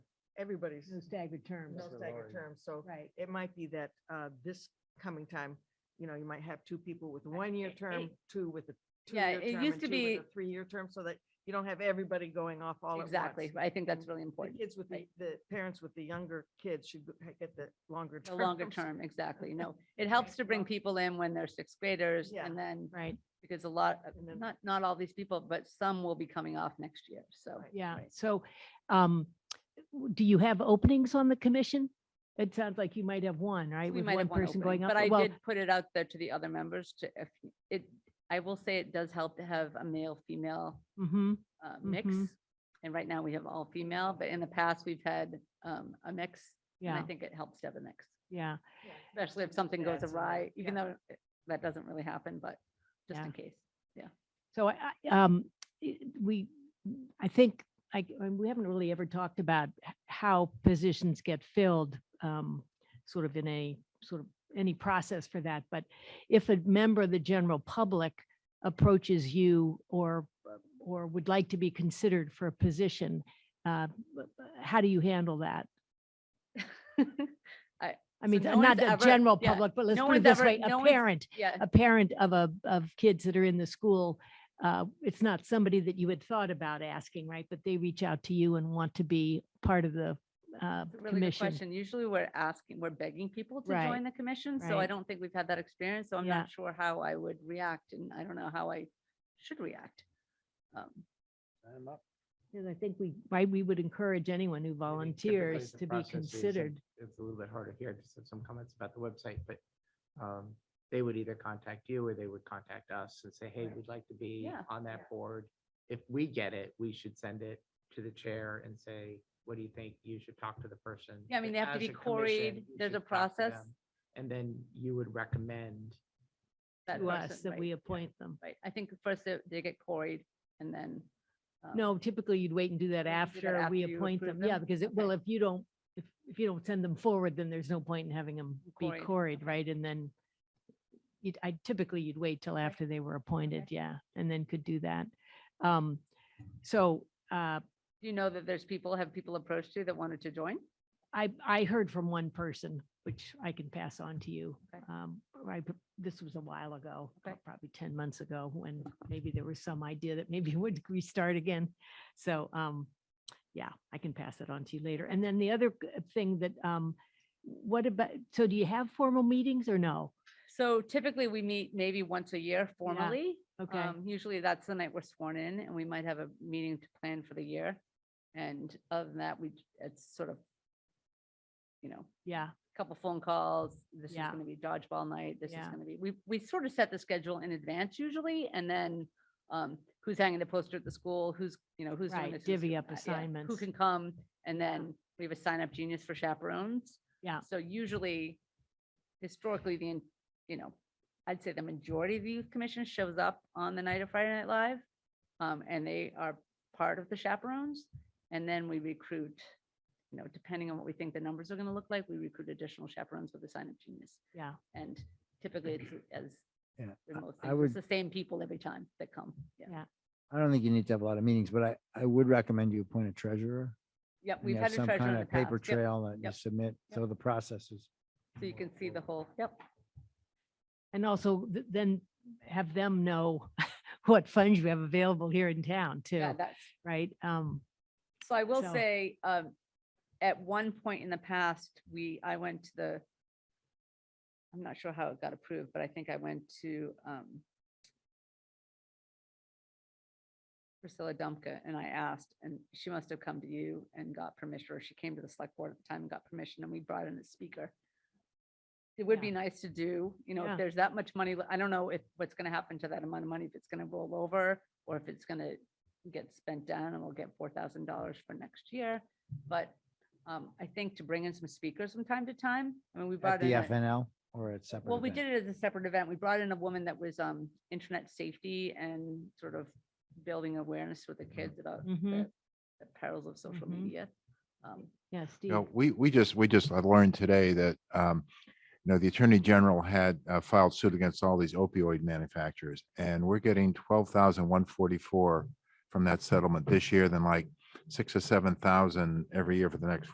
everybody's no staggered terms, no Mr. staggered Lawyer. terms, so right? it might be that uh, this coming time, you know, you might have two people with a one-year it- term, it- two with a Yeah, two-year it term, used and to two with be- a Three-year term, so that you don't have everybody going off all at once. Mm. Exactly. but I think that's really The important. kids with the, the parents with the younger kids should go- get the longer The term. longer term, exactly. No, it helps to bring people in when they're sixth graders Yeah. and then, Right, because a lot, of- And then- not, not all these people, but some will be coming off next year. So Right. yeah. So um, w- do you have openings on the commission? It sounds like you might have one, right? we with might have one person opening, going up. but I Well, did put it out there to the other members to, if it, I will say it does help to have a male, female mhm, uh, mix. Mhm. And right now we have all female, but in the past we've had um, a mix. And I Yeah, think it helps to have a mix, yeah. especially if something goes adds another- awry, even though it- that doesn't really happen, but just Yeah. in case. So I, I, um, i- we, I think, I, and we haven't really ever talked about h- how positions get filled, um, sort of in a, sort of any process for that. But if a member of the general public approaches you or, or would like to be considered for a position, uh, b- b- how do you handle that? I So mean, no uh, not one's the ever- general yeah, public, but let's no put it one's this ever- way, no a one's- parent, Yeah, a parent of a, of kids that are in the school, uh, it's not somebody that you had thought about asking, right? But they reach out to you and want to be part of the uh, it's a really good commission. question. Usually we're asking, we're begging people to Right, join the commission, so I right. don't think we've had that experience, so I'm Yeah. not sure how I would react, and I don't know how I should react. Um, I'm up. Because I think we, right, we would encourage anyone I who think volunteers typically the to be process is, and considered. It's a little bit harder here, just have some comments about the website, but um, they would either contact you or they would contact us and say, hey, we'd like to be Yeah. on that board. If we get it, we should send it to the chair and say, what do you think? You should talk to the person. Yeah, I mean, they have to As be a commission, queried. you There's should a talk to process. them, And then you would recommend, that To us, person, that right, we appoint them. Right, I think first they, they get quarried and then. um, No, typically you'd wait and do that do that after after we you appoint approve them. Yeah, them? because it, Okay. well, if you don't, if, if you don't send them forward, then there's no point in having them be Quarried, quarried, okay. right? And then you'd, I typically you'd wait till after they were appointed, yeah, and then could do that. Um, so, uh, Do you know that there's people, have people approached you that wanted to join? I, I heard from one person, which I can pass on to you. Okay. Um, right, but this was a while ago, Okay. probably ten months ago, when maybe there was some idea that maybe it would restart again. So, um, yeah, I can pass it on to you later. And then the other g- thing that, um, what about, so do you have formal meetings or no? So typically we meet maybe once a year formally. Okay, Um, Usually that's the night we're sworn in and we might have a meeting to plan for the year. And other than that, we, j- it's sort of, you know, yeah, a couple phone calls. This is Yeah. going to be dodgeball night. This is Yeah. going to be, we, we sort of set the schedule in advance usually. And then um, who's hanging the poster at the school, who's, you know, who's doing Right, this. who's divvy doing up that, yeah, assignments. Who can come? And then we have a sign up genius for chaperones. Yeah. So usually historically, the, en- you know, I'd say the majority of the youth commission shows up on the night of Friday Night Live. Um, and they are part of the chaperones. And then we recruit, you know, depending on what we think the numbers are going to look like, we recruit additional chaperones with the sign up genius. yeah, And typically it's as Yeah, with most I things, would- it's the same people every time that come. Yeah. Yeah. I don't think you need to have a lot of meetings, but I, I would recommend you appoint a treasurer. Yep, and we've you had have a some treasurer in kind the of Paper past. Yep. trail that you yep, submit, yep. so the process is. So you can see the whole, yep. and also th- then have them know what funds you have available here in town too, Yeah, that's, right? Um, So I will So- say, um, at one point in the past, we, I went to the, I'm not sure how it got approved, but I think I went to, um, Priscilla Dumpka and I asked, and she must have come to you and got permission, or she came to the select board at the time and got permission, and we brought in a speaker. It would be Yeah. nice to do, you know, Yeah. if there's that much money, le- I don't know if, what's gonna happen to that amount of money, if it's gonna roll over, or if it's gonna get spent down and we'll get four thousand dollars for next year. But um, I think to bring in some speakers from time to time, I mean, we At brought in. the a- FNL or at separate. Well, we event? did it as a separate event. We brought in a woman that was um, internet safety and sort of building awareness with the kids about mhm, the the perils of social Mhm. media. Um, yeah, Steve. No, we, we just, we just, I learned today that, um, you know, the Attorney General had uh, filed suit against all these opioid manufacturers and we're getting twelve thousand one forty-four from that settlement this year, then like six or seven thousand every year for the next